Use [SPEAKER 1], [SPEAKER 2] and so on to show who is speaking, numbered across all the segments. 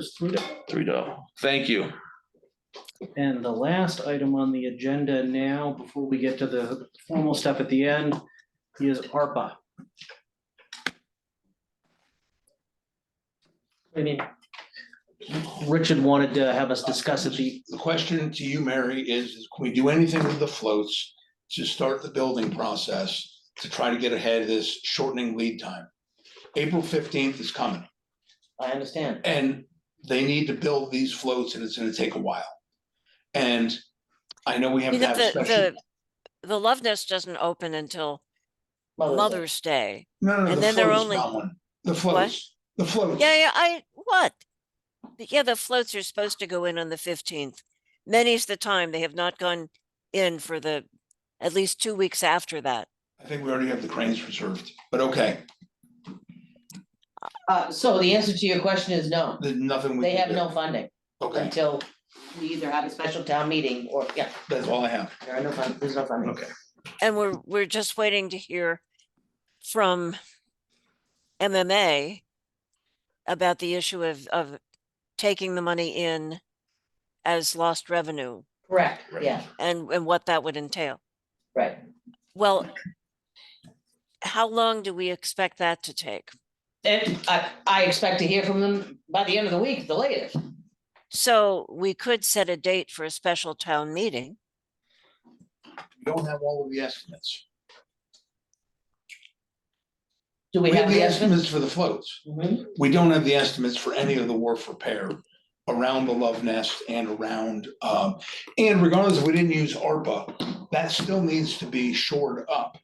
[SPEAKER 1] Just three.
[SPEAKER 2] Three dollars. Thank you.
[SPEAKER 1] And the last item on the agenda now, before we get to the formal stuff at the end, is ARPA. I mean, Richard wanted to have us discuss it, the,
[SPEAKER 3] The question to you, Mary, is, is can we do anything with the floats to start the building process to try to get ahead of this shortening lead time? April fifteenth is coming
[SPEAKER 1] I understand,
[SPEAKER 3] and they need to build these floats and it's gonna take a while. And I know we have
[SPEAKER 4] You
[SPEAKER 3] to
[SPEAKER 4] know,
[SPEAKER 3] have a
[SPEAKER 4] the,
[SPEAKER 3] special.
[SPEAKER 4] the, the Love Nest doesn't open until
[SPEAKER 1] Oh,
[SPEAKER 4] Mother's Day.
[SPEAKER 3] No, no, no,
[SPEAKER 4] and
[SPEAKER 3] the
[SPEAKER 4] then they're
[SPEAKER 3] floats,
[SPEAKER 4] only-
[SPEAKER 3] not one. The floats, the floats.
[SPEAKER 4] Yeah, yeah, I, what? Yeah, the floats are supposed to go in on the fifteenth. Many's the time. They have not gone in for the, at least two weeks after that.
[SPEAKER 3] I think we already have the cranes reserved, but okay,
[SPEAKER 5] Uh, so the answer to your question is no,
[SPEAKER 3] there's nothing we
[SPEAKER 5] they
[SPEAKER 3] can
[SPEAKER 5] have
[SPEAKER 3] do.
[SPEAKER 5] no funding
[SPEAKER 3] Okay,
[SPEAKER 5] until we either have a special town meeting or, yeah,
[SPEAKER 3] that's all I have.
[SPEAKER 5] there are no fund, there's no funding.
[SPEAKER 3] Okay.
[SPEAKER 4] And we're, we're just waiting to hear from MMA about the issue of, of taking the money in as lost revenue
[SPEAKER 5] Correct,
[SPEAKER 2] Right.
[SPEAKER 5] yeah,
[SPEAKER 4] and, and what that would entail.
[SPEAKER 5] right.
[SPEAKER 4] Well, how long do we expect that to take?
[SPEAKER 5] And I, I expect to hear from them by the end of the week, the latest.
[SPEAKER 4] So we could set a date for a special town meeting.
[SPEAKER 3] We don't have all of the estimates.
[SPEAKER 5] Do we have the estimate?
[SPEAKER 3] estimates for the floats.
[SPEAKER 5] Mhm.
[SPEAKER 3] We don't have the estimates for any of the wharf repair around the Love Nest and around, um, and regardless, if we didn't use ARPA, that still needs to be shored up.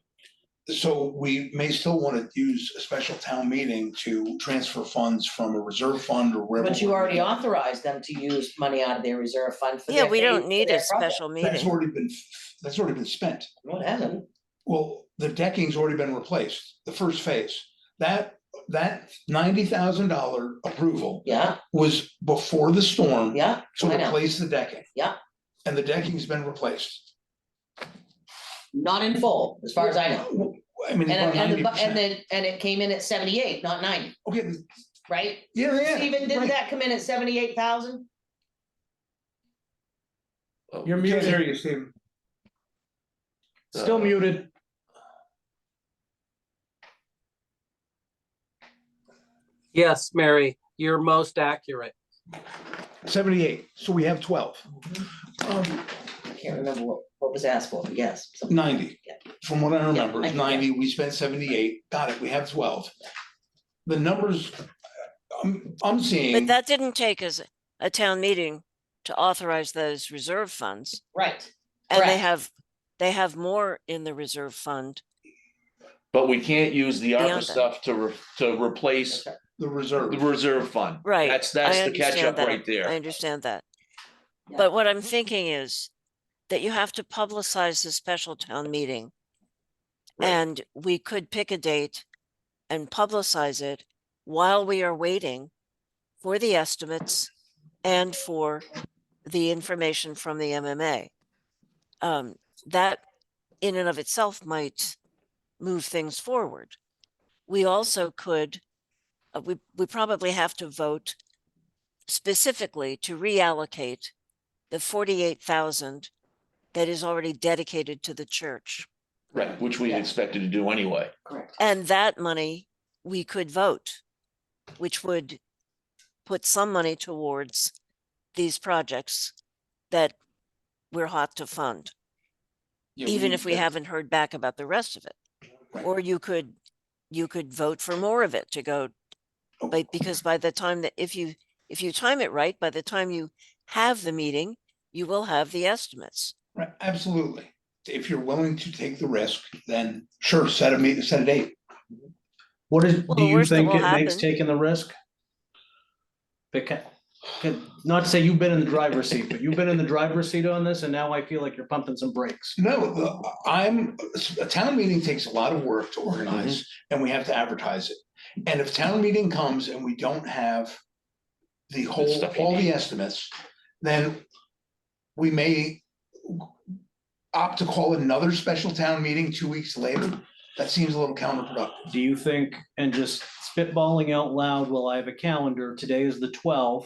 [SPEAKER 3] So we may still want to use a special town meeting to transfer funds from a reserve fund or wherever.
[SPEAKER 5] But you already authorized them to use money out of their reserve fund for
[SPEAKER 4] Yeah,
[SPEAKER 5] their-
[SPEAKER 4] we don't
[SPEAKER 5] for
[SPEAKER 4] need
[SPEAKER 5] their
[SPEAKER 4] a
[SPEAKER 5] project.
[SPEAKER 4] special
[SPEAKER 3] That's
[SPEAKER 4] meeting.
[SPEAKER 3] already been, that's already been spent.
[SPEAKER 5] No, it hasn't.
[SPEAKER 3] Well, the decking's already been replaced, the first phase. That, that ninety thousand dollar approval
[SPEAKER 5] Yeah,
[SPEAKER 3] was before the storm.
[SPEAKER 5] yeah,
[SPEAKER 3] So
[SPEAKER 5] I know.
[SPEAKER 3] replace the decking.
[SPEAKER 5] Yeah.
[SPEAKER 3] And the decking's been replaced.
[SPEAKER 5] not in full, as far as I know.
[SPEAKER 3] W- I mean,
[SPEAKER 5] And,
[SPEAKER 3] about
[SPEAKER 5] and,
[SPEAKER 3] ninety
[SPEAKER 5] the bu- and
[SPEAKER 3] percent.
[SPEAKER 5] then, and it came in at seventy-eight, not ninety,
[SPEAKER 3] Okay,
[SPEAKER 5] right?
[SPEAKER 3] yeah, yeah.
[SPEAKER 5] Steven,
[SPEAKER 3] right.
[SPEAKER 5] didn't that come in at seventy-eight thousand?
[SPEAKER 1] you're
[SPEAKER 3] Can't hear
[SPEAKER 1] muted,
[SPEAKER 3] you, Steven.
[SPEAKER 1] still muted.
[SPEAKER 6] Yes, Mary, you're most accurate.
[SPEAKER 3] Seventy-eight, so we have twelve. Um,
[SPEAKER 5] I can't remember what, what was asked for, but yes. something-
[SPEAKER 3] ninety,
[SPEAKER 5] Yeah.
[SPEAKER 3] from what I remember,
[SPEAKER 5] I
[SPEAKER 3] it's
[SPEAKER 5] think, yeah.
[SPEAKER 3] ninety, we spent seventy-eight, got it, we have twelve. The numbers, uh, I'm, I'm
[SPEAKER 4] But
[SPEAKER 3] seeing,
[SPEAKER 4] that didn't take us a town meeting to authorize those reserve funds.
[SPEAKER 5] Right,
[SPEAKER 4] And they
[SPEAKER 5] Correct.
[SPEAKER 4] have, they have more in the reserve fund.
[SPEAKER 2] But we can't use the ARPA
[SPEAKER 4] Beyond that.
[SPEAKER 2] stuff to, re- to replace
[SPEAKER 3] the
[SPEAKER 2] the
[SPEAKER 3] reserve,
[SPEAKER 2] reserve fund.
[SPEAKER 4] Right.
[SPEAKER 2] That's,
[SPEAKER 4] I
[SPEAKER 2] that's the
[SPEAKER 4] understand
[SPEAKER 2] catch up
[SPEAKER 4] that.
[SPEAKER 2] right
[SPEAKER 4] I
[SPEAKER 2] there.
[SPEAKER 4] understand that.
[SPEAKER 5] Yeah.
[SPEAKER 4] But what I'm thinking is that you have to publicize the special town meeting.
[SPEAKER 2] Right.
[SPEAKER 4] And we could pick a date and publicize it while we are waiting for the estimates and for the information from the MMA. Um, that in and of itself might move things forward. We also could, uh, we, we probably have to vote specifically to reallocate the forty-eight thousand that is already dedicated to the church.
[SPEAKER 2] Right, which we
[SPEAKER 5] Yeah.
[SPEAKER 2] expected to do anyway.
[SPEAKER 5] correct.
[SPEAKER 4] And that money, we could vote, which would put some money towards these projects that we're hot to fund,
[SPEAKER 3] Yeah,
[SPEAKER 4] even if we
[SPEAKER 3] yeah.
[SPEAKER 4] haven't heard back about the rest of it.
[SPEAKER 3] Right.
[SPEAKER 4] Or you could, you could vote for more of it to go,
[SPEAKER 3] Oh.
[SPEAKER 4] but because by the time that, if you, if you time it right, by the time you have the meeting, you will have the estimates.
[SPEAKER 3] Right, absolutely. If you're willing to take the risk, then sure, set a meet, set a date.
[SPEAKER 1] What is,
[SPEAKER 4] Well,
[SPEAKER 1] do
[SPEAKER 4] the
[SPEAKER 1] you
[SPEAKER 4] worst that
[SPEAKER 1] think
[SPEAKER 4] will
[SPEAKER 1] it makes
[SPEAKER 4] happen-
[SPEAKER 1] taking the risk? Because, not to say you've been in the driver's seat, but you've been in the driver's seat on this, and now I feel like you're pumping some brakes.
[SPEAKER 3] No, the- I'm, a town meeting takes a lot of work to organize
[SPEAKER 2] Mm-hmm.
[SPEAKER 3] and we have to advertise it. And if town meeting comes and we don't have the whole,
[SPEAKER 2] stuff you
[SPEAKER 3] all the
[SPEAKER 2] need.
[SPEAKER 3] estimates, then we may opt to call another special town meeting two weeks later. That seems a little counterproductive.
[SPEAKER 1] Do you think, and just spitballing out loud while I have a calendar, today is the twelfth.